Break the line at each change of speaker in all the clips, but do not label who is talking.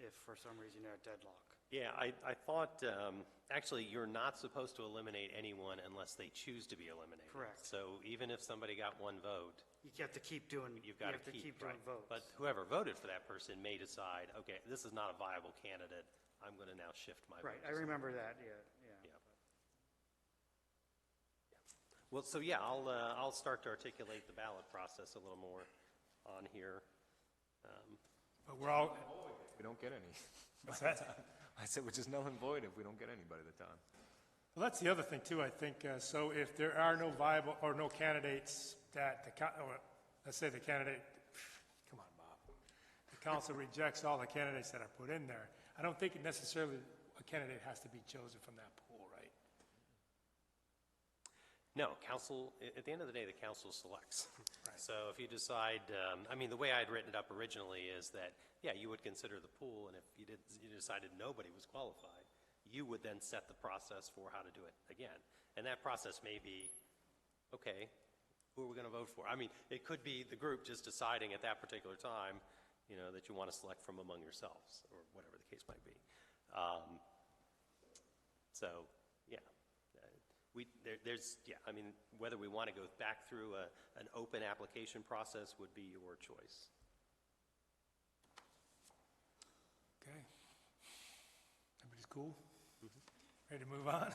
if for some reason you're at deadlock.
Yeah, I, I thought, um, actually, you're not supposed to eliminate anyone unless they choose to be eliminated.
Correct.
So even if somebody got one vote,
You have to keep doing, you
you've got to
have
keep.
to keep
right.
doing votes.
But whoever voted for that person may decide, okay, this is not a viable candidate, I'm going to now shift my vote.
Right, I
to someone."
remember that, yeah, yeah.
Yeah. Well, so yeah, I'll, uh, I'll start to articulate the ballot process a little more on here.
But we're all,
We don't get any.
what's that?
I said, which is null and void if we don't get anybody at the time.
Well, that's the other thing too, I think, uh, so if there are no viable, or no candidates that the, co- or, let's say the candidate, come on, Bob. The council rejects all the candidates that are put in there. I don't think necessarily a candidate has to be chosen from that pool, right?
No, council, a- at the end of the day, the council selects. So if you decide, um, I mean, the way I'd written it up originally is that, yeah, you would consider the pool, and if you did, you decided nobody was qualified, you would then set the process for how to do it again. And that process may be, okay, who are we going to vote for? I mean, it could be the group just deciding at that particular time, you know, that you want to select from among yourselves, or whatever the case might be. Um, so, yeah, Uh, we, there, there's, yeah, I mean, whether we want to go back through a, an open application process would be your choice.
Okay. Everybody's cool? Ready to move on?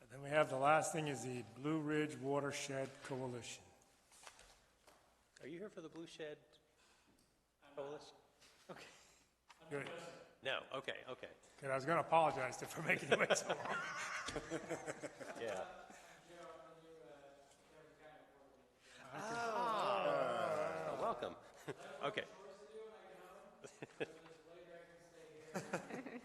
And then we have the last thing is the Blue Ridge Watershed Coalition.
Are you here for the Blue Shed Coalition?
Good.
No, okay, okay,
Good, I was gonna apologize to- for making you wait so long.
yeah. Ah, welcome. Okay,
Don't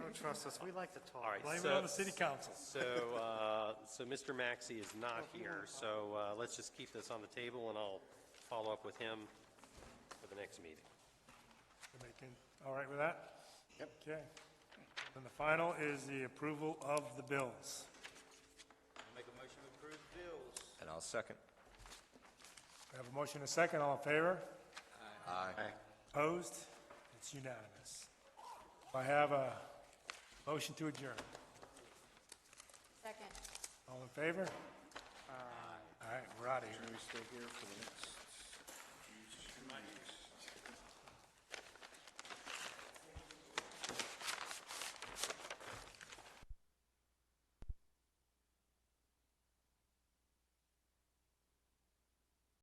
Oh, trust us, we like to talk.
all right.
Blame it
so-
on the city council.
So, uh, so Mr. Maxey is not here, so uh, let's just keep this on the table, and I'll follow up with him for the next meeting.
You making, all right with that? Yep. Okay. Then the final is the approval of the bills.
Make a motion to approve bills.
And I'll second.
We have a motion and a second, all in favor?
Aye.
Opposed? It's unanimous. I have a motion to adjourn.
Second.
All in favor? All right, we're out of here.
We stay here for the next.